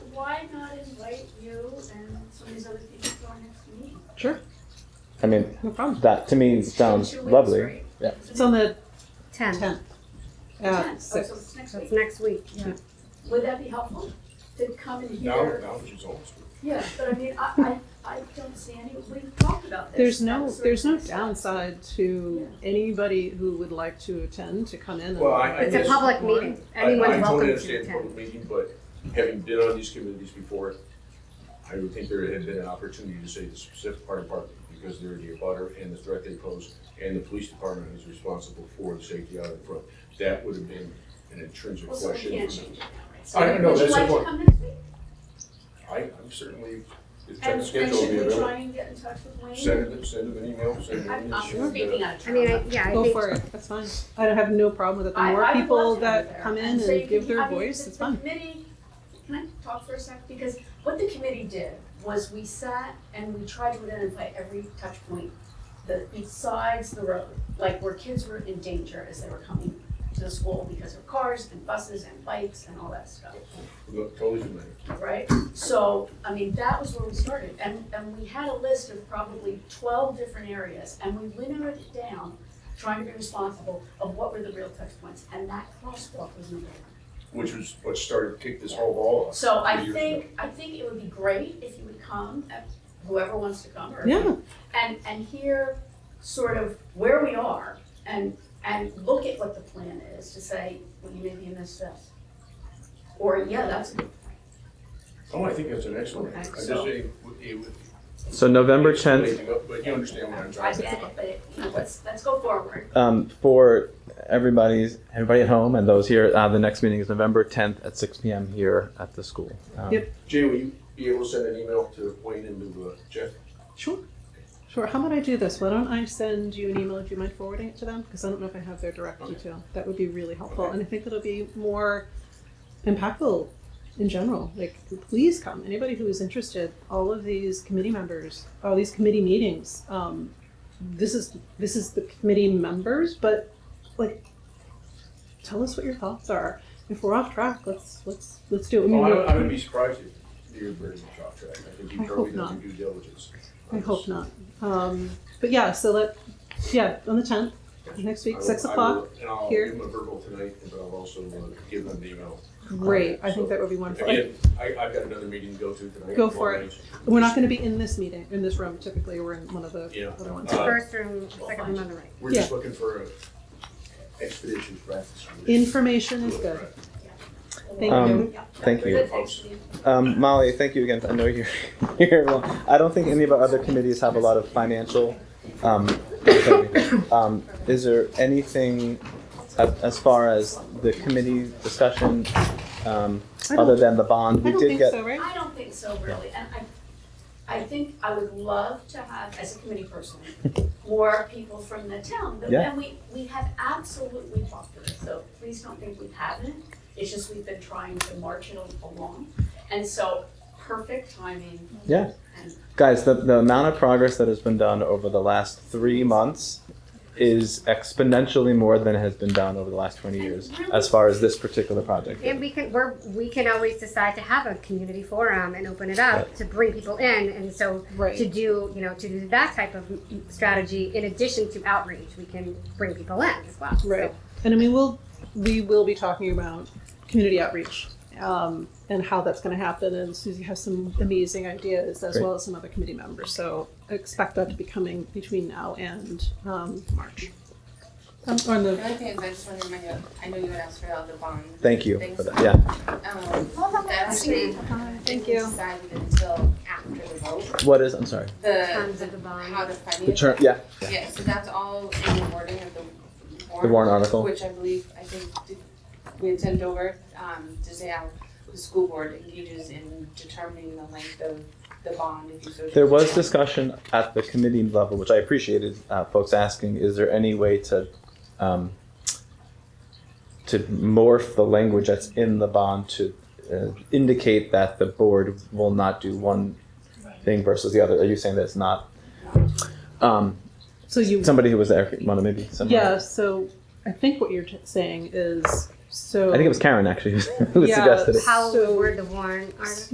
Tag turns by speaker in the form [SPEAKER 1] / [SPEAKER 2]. [SPEAKER 1] why not invite you and some of these other people to our next meeting?
[SPEAKER 2] Sure,
[SPEAKER 3] I mean,
[SPEAKER 2] no problem.
[SPEAKER 3] that to me sounds
[SPEAKER 1] Two weeks,
[SPEAKER 3] lovely.
[SPEAKER 1] right?
[SPEAKER 3] yeah.
[SPEAKER 2] It's on the
[SPEAKER 4] Ten.
[SPEAKER 2] tenth.
[SPEAKER 1] Ten.
[SPEAKER 2] Uh,
[SPEAKER 1] Oh, so
[SPEAKER 2] six.
[SPEAKER 1] it's next
[SPEAKER 4] So it's
[SPEAKER 1] week.
[SPEAKER 4] next week.
[SPEAKER 1] Would that be helpful to come in
[SPEAKER 5] Now,
[SPEAKER 1] here?
[SPEAKER 5] now she's old school.
[SPEAKER 1] Yeah, but I mean, I, I, I don't see any, we've talked about this.
[SPEAKER 2] There's no,
[SPEAKER 1] That's sort
[SPEAKER 2] there's no
[SPEAKER 1] of-
[SPEAKER 2] downside to anybody who would like to attend to come in. and-
[SPEAKER 5] Well, I- I
[SPEAKER 4] It's a
[SPEAKER 5] guess-
[SPEAKER 4] public meeting.
[SPEAKER 5] I-
[SPEAKER 4] Anyone's
[SPEAKER 5] I totally
[SPEAKER 4] welcome to
[SPEAKER 5] understand
[SPEAKER 4] attend.
[SPEAKER 5] public meeting, but having been on these committees before, I would think there had been an opportunity to say the specific fire department, because they're the abutter and the threat they pose, and the police department is responsible for the safety out in front. That would have been an intrinsic
[SPEAKER 1] Well, so we
[SPEAKER 5] question.
[SPEAKER 1] can't
[SPEAKER 5] for
[SPEAKER 1] change
[SPEAKER 5] them.
[SPEAKER 1] it now, right?
[SPEAKER 5] I don't know,
[SPEAKER 1] So
[SPEAKER 5] that's the
[SPEAKER 1] Would you like to
[SPEAKER 5] point.
[SPEAKER 1] come next week?
[SPEAKER 5] I, I'm certainly, if
[SPEAKER 1] And,
[SPEAKER 5] the
[SPEAKER 1] and
[SPEAKER 5] schedule will
[SPEAKER 1] should
[SPEAKER 5] be
[SPEAKER 1] we try
[SPEAKER 5] available,
[SPEAKER 1] and get in touch with Wayne?
[SPEAKER 5] send them, send them an email, send them an
[SPEAKER 1] I'm,
[SPEAKER 5] email.
[SPEAKER 1] I'm speaking out of
[SPEAKER 4] I
[SPEAKER 1] turn.
[SPEAKER 4] mean, I, yeah, I
[SPEAKER 2] Go
[SPEAKER 4] think
[SPEAKER 2] for it. That's fine. I don't have no problem with it. The
[SPEAKER 1] I-
[SPEAKER 2] more
[SPEAKER 1] I would
[SPEAKER 2] people
[SPEAKER 1] love to have you
[SPEAKER 2] that
[SPEAKER 1] there.
[SPEAKER 2] come in
[SPEAKER 1] so you
[SPEAKER 2] and give
[SPEAKER 1] can- I
[SPEAKER 2] their
[SPEAKER 1] mean,
[SPEAKER 2] voice,
[SPEAKER 1] the-
[SPEAKER 2] it's fun.
[SPEAKER 1] The committee, can I talk for a sec? Because what the committee did was we sat and we tried to identify every touch point that besides the road, like where kids were in danger as they were coming to school because of cars and buses and bikes and all that stuff,
[SPEAKER 5] Look, Totally familiar.
[SPEAKER 1] right? So, I mean, that was where we started, and, and we had a list of probably twelve different areas, and we limited it down, trying to be responsible of what were the real touch points, and that crosswalk was number one.
[SPEAKER 5] which was what started to kick this whole ball off.
[SPEAKER 1] So I
[SPEAKER 5] Three years
[SPEAKER 1] think, I think it would be great if you would come, uh, whoever wants to come, or.
[SPEAKER 2] Yeah.
[SPEAKER 1] And, and hear sort of where we are and, and look at what the plan is to say, well, you maybe you missed this. Or, yeah, that's a good point.
[SPEAKER 5] Oh, I think that's an excellent. I just
[SPEAKER 1] So-
[SPEAKER 5] say, would- it would-
[SPEAKER 3] So November
[SPEAKER 5] it's late
[SPEAKER 3] tenth.
[SPEAKER 5] to go, But you understand what I'm
[SPEAKER 1] I
[SPEAKER 5] trying to
[SPEAKER 1] get it, but it, you know, let's, let's go forward.
[SPEAKER 3] Um, for everybody's everybody at home and those here, uh, the next meeting is November tenth at six p.m. here at the school. Um,
[SPEAKER 2] Yep.
[SPEAKER 5] Jay, will you be able to send an email to Wayne and to uh, Jeff?
[SPEAKER 2] Sure. Sure. How about I do this? Why don't I send you an email if you mind forwarding it to them? Because I don't know if I have their direct
[SPEAKER 5] Okay.
[SPEAKER 2] detail. That would be really helpful.
[SPEAKER 5] Okay.
[SPEAKER 2] And I think that'll be more impactful in general. Like, please come. Anybody who is interested, all of these committee members, all these committee meetings, um, this is this is the committee members, but like tell us what your thoughts are. If we're off track, let's let's let's do it. I mean,
[SPEAKER 5] Well,
[SPEAKER 2] we're-
[SPEAKER 5] Oh, I I would be surprised if you're very much off track. I think
[SPEAKER 2] I
[SPEAKER 5] you
[SPEAKER 2] hope
[SPEAKER 5] probably done
[SPEAKER 2] not.
[SPEAKER 5] your due diligence.
[SPEAKER 2] I hope not. Um, but yeah, so let, yeah, on the tenth, next
[SPEAKER 5] I
[SPEAKER 2] week,
[SPEAKER 5] will-
[SPEAKER 2] six
[SPEAKER 5] I will-
[SPEAKER 2] o'clock.
[SPEAKER 5] And I'll
[SPEAKER 2] here.
[SPEAKER 5] give them a verbal tonight, but I'll also uh, give them an email.
[SPEAKER 2] Great, I think that would be wonderful. And
[SPEAKER 5] Again, I, I've got another meeting to go to tonight.
[SPEAKER 2] Go for it.
[SPEAKER 5] Apologies.
[SPEAKER 2] We're not gonna be in this meeting, in this room typically, we're in one of the
[SPEAKER 5] Yeah.
[SPEAKER 2] other ones.
[SPEAKER 4] the
[SPEAKER 5] Uh,
[SPEAKER 4] first room, second room on the right.
[SPEAKER 5] We're just looking for a expedition practice.
[SPEAKER 2] Information is good. Thank
[SPEAKER 3] Um,
[SPEAKER 2] you.
[SPEAKER 3] Thank you.
[SPEAKER 1] Good, thanks, Steve.
[SPEAKER 3] Um, Molly, thank you again. I know you're here. Well, I don't think any of our other committees have a lot of financial. Um, um, is there anything as, as far as the committee discussion, um,
[SPEAKER 2] I
[SPEAKER 3] other
[SPEAKER 2] don't,
[SPEAKER 3] than the bond?
[SPEAKER 2] I
[SPEAKER 3] We
[SPEAKER 2] don't
[SPEAKER 3] did
[SPEAKER 2] think
[SPEAKER 3] get
[SPEAKER 2] so, right?
[SPEAKER 1] I don't think so, really, and I, I think I would love to have, as a committee person, more people from the town, but,
[SPEAKER 3] Yeah.
[SPEAKER 1] and we, we have absolutely talked to it, so please don't think we haven't. It's just we've been trying to march it along, and so, perfect timing.
[SPEAKER 3] Yeah.
[SPEAKER 1] And
[SPEAKER 3] Guys, the, the amount of progress that has been done over the last three months is exponentially more than has been done over the last 20 years as far as this particular project.
[SPEAKER 4] And we can, we're, we can always decide to have a community forum and open it up to bring people in. And so to
[SPEAKER 2] Right.
[SPEAKER 4] do, you know, to do that type of strategy in addition to outreach, we can bring people in as well. So
[SPEAKER 2] Right, and I mean, we'll, we will be talking about community outreach, um, and how that's gonna happen, and Susie has some amazing ideas as
[SPEAKER 3] Great.
[SPEAKER 2] well as some other committee members, so expect that to be coming between now and, um, March. Um, or in the
[SPEAKER 6] The only thing is, I just want to remind you, I know you had asked about the bond.
[SPEAKER 3] Thank you for that. Yeah.
[SPEAKER 6] Um, that's we
[SPEAKER 2] Thank
[SPEAKER 6] didn't decide until after the vote,
[SPEAKER 3] What is, I'm sorry,
[SPEAKER 6] the,
[SPEAKER 4] Terms of the bond.
[SPEAKER 6] how to finance.
[SPEAKER 3] the term,
[SPEAKER 6] it.
[SPEAKER 3] yeah.
[SPEAKER 6] Yeah, so that's all in the wording of the warrant.
[SPEAKER 3] The warrant article.
[SPEAKER 6] Which I believe, I think, did- we had sent over, um, to say how the school board engages in determining the length of the bond, if you so.
[SPEAKER 3] There was
[SPEAKER 6] desire.
[SPEAKER 3] discussion at the committee level, which I appreciated, uh, folks asking, is there any way to, um, to morph the language that's in the bond to uh, indicate that the board will not do one thing versus the other? Are you saying that it's not? Um,
[SPEAKER 2] So you,
[SPEAKER 3] somebody who was there, Mona, maybe someone.
[SPEAKER 2] yeah, so I think what you're t- saying is, so.
[SPEAKER 3] I think it was Karen actually who
[SPEAKER 2] Yeah,
[SPEAKER 3] suggested it.
[SPEAKER 4] How
[SPEAKER 2] So-
[SPEAKER 4] we word the warrant article.